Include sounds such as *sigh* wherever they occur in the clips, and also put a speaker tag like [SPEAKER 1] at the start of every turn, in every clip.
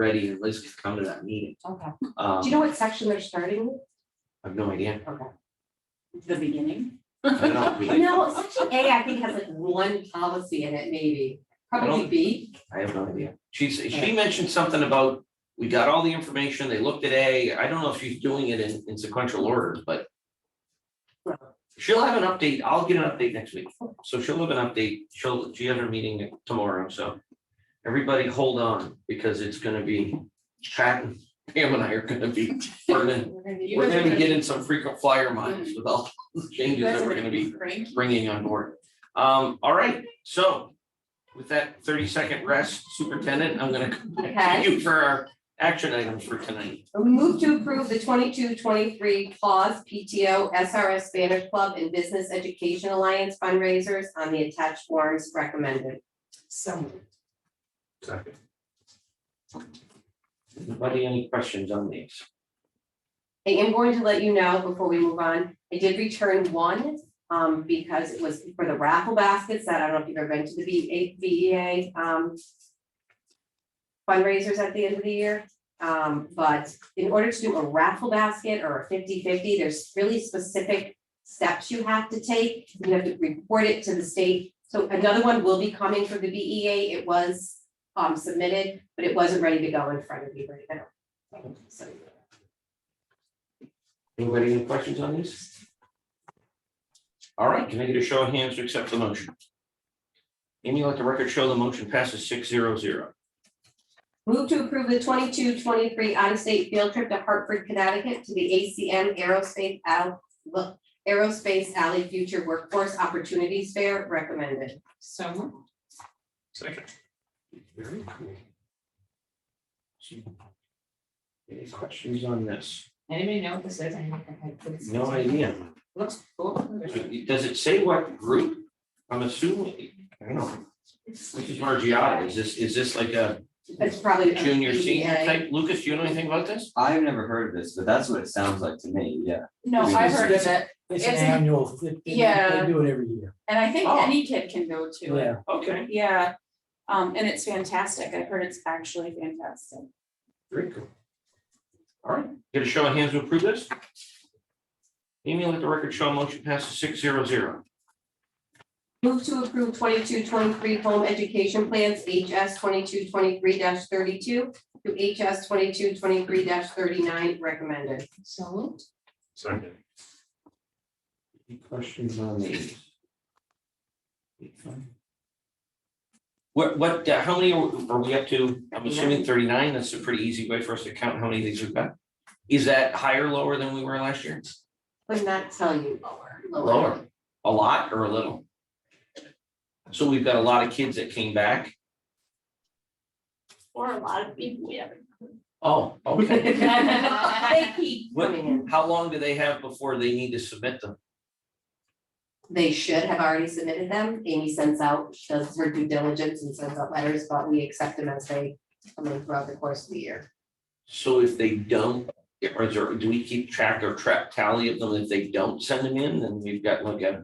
[SPEAKER 1] ready and Liz could come to that meeting.
[SPEAKER 2] Okay. Do you
[SPEAKER 1] Um,
[SPEAKER 2] know what section they're starting with?
[SPEAKER 1] I have no idea.
[SPEAKER 2] Okay. The beginning?
[SPEAKER 1] I don't
[SPEAKER 2] *laughs*
[SPEAKER 1] know. We-
[SPEAKER 2] No, section A, I think has like one policy in it, maybe.
[SPEAKER 1] don't-
[SPEAKER 2] Probably B.
[SPEAKER 1] I have no idea. She's, she mentioned something about, we got all the information, they looked at A, I don't know if she's doing it in, in sequential order, but. She'll have an update, I'll get an update next week, so she'll have an update, she'll, she has her meeting tomorrow, so. Everybody hold on, because it's gonna be, Pat and Pam and I are gonna be, burning- we're gonna be getting some frequent flyer
[SPEAKER 2] Mm.
[SPEAKER 1] miles with all the changes that we're gonna be bringing on board. Um, all right, so with that thirty second rest, superintendent, I'm gonna come back to you for our action items for tonight.
[SPEAKER 2] Move to approve the 22-23 PAWS PTO SRS Spanish Club and Business Education Alliance fundraisers on the attached forms recommended.
[SPEAKER 3] So,
[SPEAKER 1] Second. Anybody any questions on these?
[SPEAKER 2] I am going to let you know before we move on, I did return one, um, because it was for the raffle baskets that I don't know if you've ever been to the V- A- VEA, um. Fundraisers at the end of the year, um, but in order to do a raffle basket or a 50-50, there's really specific. Steps you have to take, you have to report it to the state, so another one will be coming for the VEA, it was. Um, submitted, but it wasn't ready to go in front of you right now. So,
[SPEAKER 1] Anybody any questions on these? All right, can I get a show of hands to accept the motion? Amy, let the record show the motion passes six zero zero.
[SPEAKER 2] Move to approve the 22-23 out-of-state field trip to Hartford, Connecticut to the ACM Aerospace Al- look, Aerospace Alley Future Workforce Opportunities Fair recommended.
[SPEAKER 3] so moved.
[SPEAKER 1] Second. Very cool. Any questions on this?
[SPEAKER 3] anybody know what this is? I haven't heard this.
[SPEAKER 1] No idea.
[SPEAKER 3] Looks cool.
[SPEAKER 1] Does it say what group? I'm assuming, I don't know. This is Margiotta. Is this, is this like a
[SPEAKER 2] That's probably. a
[SPEAKER 1] junior, senior
[SPEAKER 2] PBA.
[SPEAKER 1] type? Lucas, do you know anything about this?
[SPEAKER 4] I've never heard of this, but that's what it sounds like to me, yeah.
[SPEAKER 5] No, I've heard of it,
[SPEAKER 6] It's an
[SPEAKER 5] It's a-
[SPEAKER 6] annual, they, they
[SPEAKER 5] Yeah.
[SPEAKER 6] do it every year.
[SPEAKER 5] and I think
[SPEAKER 1] Oh.
[SPEAKER 5] any kid can go to it,
[SPEAKER 1] Okay,
[SPEAKER 5] yeah, um, and it's fantastic, I've heard it's actually fantastic.
[SPEAKER 1] very cool. All right, get a show of hands to approve this? Amy, let the record show motion passes six zero zero.
[SPEAKER 2] Move to approve 22-23 home education plans, HS twenty-two twenty-three thirty-two to HS twenty-two twenty-three thirty-nine recommended.
[SPEAKER 3] So moved.
[SPEAKER 1] Second. Any questions on these? What, what, uh, how many are are we up to? I'm assuming thirty-nine. That's a pretty easy way for us to count how many of these we've got. Is that higher, lower than we were last year?
[SPEAKER 2] Would not tell you. Lower.
[SPEAKER 1] Lower. A lot or a little? So we've got a lot of kids that came back.
[SPEAKER 5] Or a lot of people, we have
[SPEAKER 1] Oh, okay.
[SPEAKER 5] *laughs*
[SPEAKER 2] *laughs* They keep
[SPEAKER 1] What,
[SPEAKER 2] coming in.
[SPEAKER 1] how long do they have before they need to submit them?
[SPEAKER 2] They should have already submitted them. Amy sends out, she does her due diligence and sends out letters, but we accept them as they come in throughout the course of the year.
[SPEAKER 1] So if they don't, or is there, do we keep track or track tally of them? If they don't send them in, then we've got like a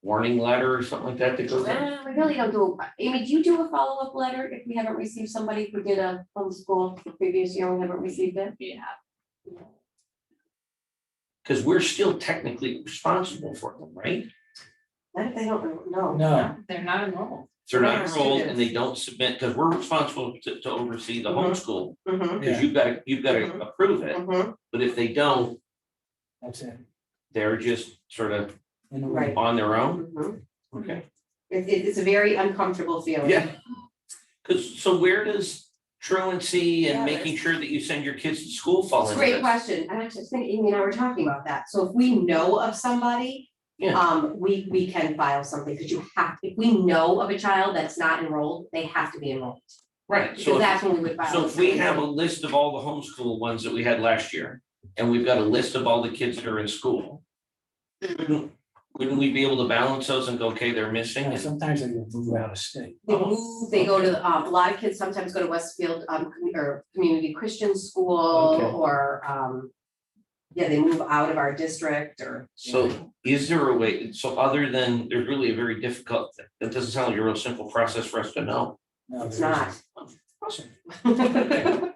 [SPEAKER 1] warning letter or something like that that goes out?
[SPEAKER 2] We really don't do, Amy, do you do a follow-up letter if we haven't received somebody who did a homeschool the previous year and we haven't received it?
[SPEAKER 5] yeah.
[SPEAKER 1] Because we're still technically responsible for them, right? If
[SPEAKER 2] Not if they don't, no.
[SPEAKER 6] No,
[SPEAKER 3] They're not enrolled.
[SPEAKER 1] They're not
[SPEAKER 2] Yes, it
[SPEAKER 1] enrolled
[SPEAKER 2] is.
[SPEAKER 1] and they don't submit, because we're responsible to, to oversee the
[SPEAKER 2] Mhm.
[SPEAKER 1] homeschool,
[SPEAKER 2] Mm-hmm,
[SPEAKER 1] because you've got, to you've got to approve it.
[SPEAKER 2] mm-hmm,
[SPEAKER 1] But if they don't,
[SPEAKER 6] that's it.
[SPEAKER 1] they're just sort of
[SPEAKER 6] In a way.
[SPEAKER 2] Right.
[SPEAKER 1] on their own,
[SPEAKER 2] mm-hmm.
[SPEAKER 1] okay?
[SPEAKER 2] It, it- it's a very uncomfortable feeling.
[SPEAKER 1] Yeah. Because, so where does truancy and
[SPEAKER 5] Yeah,
[SPEAKER 1] making sure that you send your kids to school fall
[SPEAKER 2] It's a
[SPEAKER 1] into
[SPEAKER 2] great
[SPEAKER 1] this?
[SPEAKER 2] question, and actually, I think Amy and I were talking about that, so if we know of somebody.
[SPEAKER 1] Yeah.
[SPEAKER 2] Um, we, we can file something, because you have, if we know of a child that's not enrolled, they have to be enrolled,
[SPEAKER 1] Right, so
[SPEAKER 2] because
[SPEAKER 1] if
[SPEAKER 2] that's when we would file.
[SPEAKER 1] So if we have a list of all the homeschool ones that we had last year, and we've got a list of all the kids that are in school. Wouldn't wouldn't we be able to balance those and go, okay, they're missing?
[SPEAKER 6] Yeah,
[SPEAKER 1] and-
[SPEAKER 6] Sometimes they get moved out of state.
[SPEAKER 2] They
[SPEAKER 1] Oh.
[SPEAKER 2] move, they go to, um, a lot of kids sometimes go to Westfield, um, commu- or Community Christian School,
[SPEAKER 6] Okay.
[SPEAKER 2] or, um. Yeah, they move out of our district, or.
[SPEAKER 1] So is there a way, so other than, there's really a very difficult, that doesn't sound like a real simple process for us to know.
[SPEAKER 6] No,
[SPEAKER 2] It's
[SPEAKER 6] there
[SPEAKER 2] not, *laughs* Awesome.